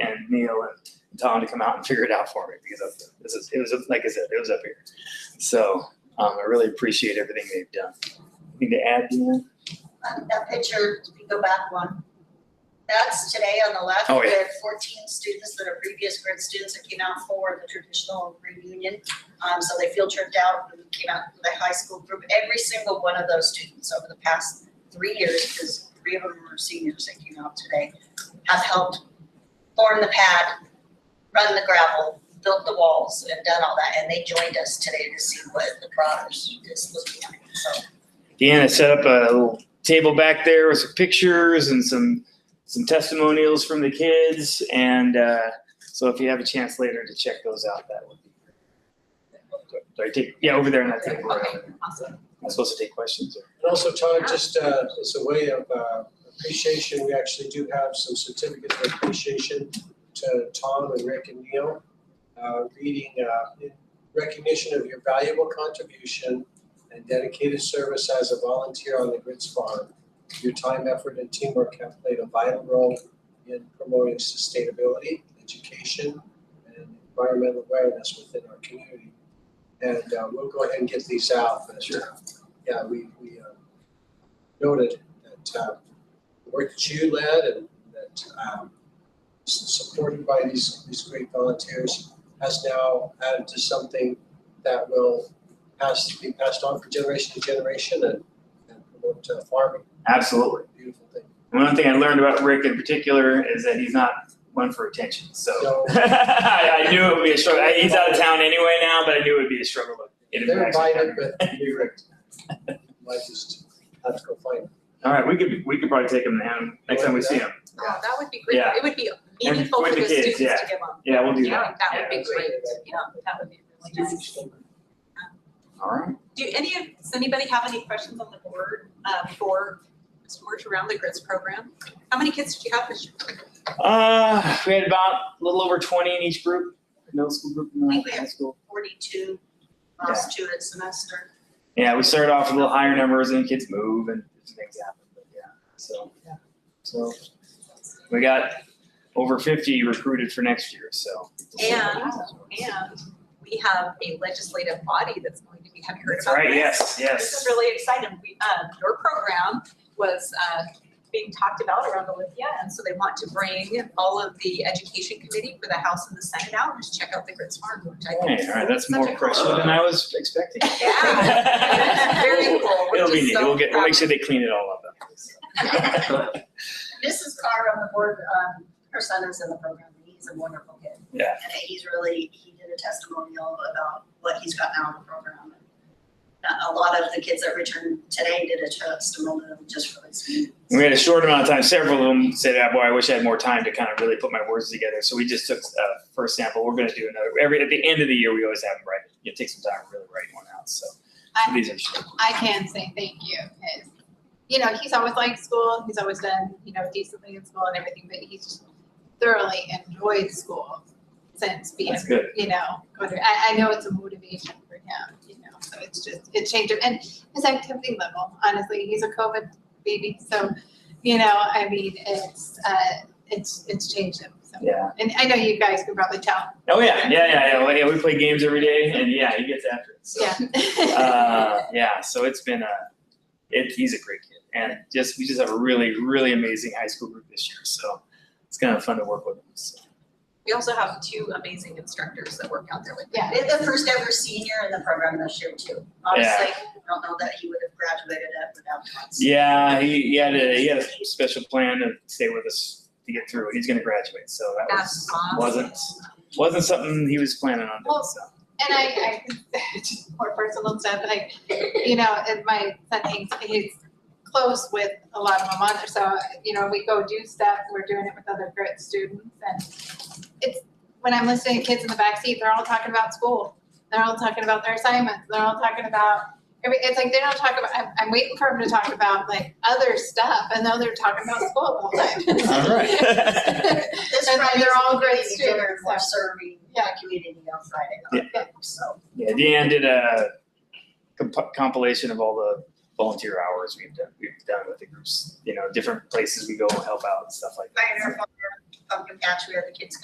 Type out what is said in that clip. and Neil and Tom to come out and figure it out for me because of, this is, it was, like I said, it was up here. So, um, I really appreciate everything they've done. Need to add, Deanna? Um, That picture, if you go back one, that's today on the left Oh, yeah. with fourteen students that are previous grad students that came out for the traditional reunion. Um, so they field tripped out, and came out with the high school group, every single one of those students over the past three years, because three of them are seniors that came out today, have helped form the pad, run the gravel, built the walls, and done all that, and they joined us today to see what the product is looking like, so. Deanna set up a little table back there with some pictures and some some testimonials from the kids. And uh, so if you have a chance later to check those out, that would be great. So I take, yeah, over there and I take right over there. Awesome. I'm supposed to take questions. Or, And also, Todd, just uh, as a way of uh, appreciation, we actually do have some certificates of appreciation to Tom and Rick and Neil, uh, reading uh, in recognition of your valuable contribution and dedicated service as a volunteer on the Grits Farm. Your time, effort, and teamwork have played a vital role in promoting sustainability, education, and environmental awareness within our community. And uh, we'll go ahead and get these out. but, uh, yeah, we, we uh, noted that uh, the work that you led and that um, s- supported by these, these great volunteers has now added to something that will pass, be passed on from generation to generation and, and promote uh, farming, absolutely. beautiful thing. And one thing I learned about Rick in particular is that he's not one for attention. So No. I, I knew it would be a struggle. I- He's out of town anyway now, but I knew it would be a struggle. to get him They're back. invited, but you might just have to go find them. All right, we could we could probably take him down next time we see him. Oh, that would be great. Yeah. It would be meaningful for with the the kids, students to give yeah. up. Yeah, we'll do Yeah, that. that would Yeah. be great. Yeah, that would be really nice. All right. Do any of, does anybody have any questions on the board uh, for George around the grits program? How many kids did you have this year? Uh, we had about a little over 20 in each group, middle school group and We- we- high school. forty-two last student semester. Yeah, we started off with a little higher numbers and kids move and things happen, but yeah, so. So we got over 50 recruited for next year, so. And- And we have a legislative body that's going to be, have you heard That's about this? right, yes, This is yes. really exciting. We, uh, your program was, uh, being talked about around Olympia, and so they want to bring all of the education committee for the House and the Senate out and just check out the grits farm, which I think Hey, is all right, that's such a more cool- pressure than I was expecting. Yeah. Very cool, which It'll be is neat. so We'll get, we'll make fun. sure they clean it all up. Mrs. Carr on the board, um, her son is in the program, and he's a wonderful kid. Yeah. And he's really, he did a testimonial about what he's got now in the program. Uh, A, a lot of the kids that returned today did a testimonial just for this. We had a short amount of time. Several of them said, ah, "Boy, I wish I had more time to kind of really put my words together." So we just took uh, first sample. We're going to do another every at the end of the year. We always have them write. You take some time to really write one out. So, so these are short. I can say thank you, because, you know, he's always liked school, he's always done, you know, decently in school and everything, but he's just thoroughly enjoyed school since being, That's good. you know, going to, I, I know it's a motivation for him, you know, so it's just, it changed him, and his activity level, honestly, he's a COVID baby, so, you know, I mean, it's, uh, it's, it's changed him, so. Yeah. And I know you guys can probably tell, Oh yeah, yeah, yeah, yeah. Well, yeah, we play games every day, and yeah, he gets after it. So. yeah. uh, yeah, so it's been a, it, he's a great kid, and just we just have a really, really amazing high school group this year. So it's kind of fun to work with them. So. We also have two amazing instructors that work out there with Yeah. It's the first ever senior in the program this year too. Honestly, I don't know that he would have graduated it without us. Yeah, he, he had a he had a special plan to stay with us to get through. He's gonna graduate, so that was That's awesome. wasn't wasn't something he was planning on doing. Well, So And I, I, just more personal stuff, but I, you know, and my son hangs, he's close with a lot of them on there, so, you know, we go do stuff, we're doing it with other grit students, and it's, when I'm listening to kids in the backseat, they're all talking about school, they're all talking about their assignments, they're all talking about, every, it's like, they don't talk about, I'm, I'm waiting for them to talk about like other stuff, and now they're talking about school all the time. All right. This And Friday, they're all great dinner, students, we're so- serving the Yeah. community on Friday, Yeah. so. yeah, Deanne did a comp- compilation of all the volunteer hours we've done we've done with the groups. You know, different places we go help out and stuff like that. Pioneer Farm, pumpkin patch, we had um, the kids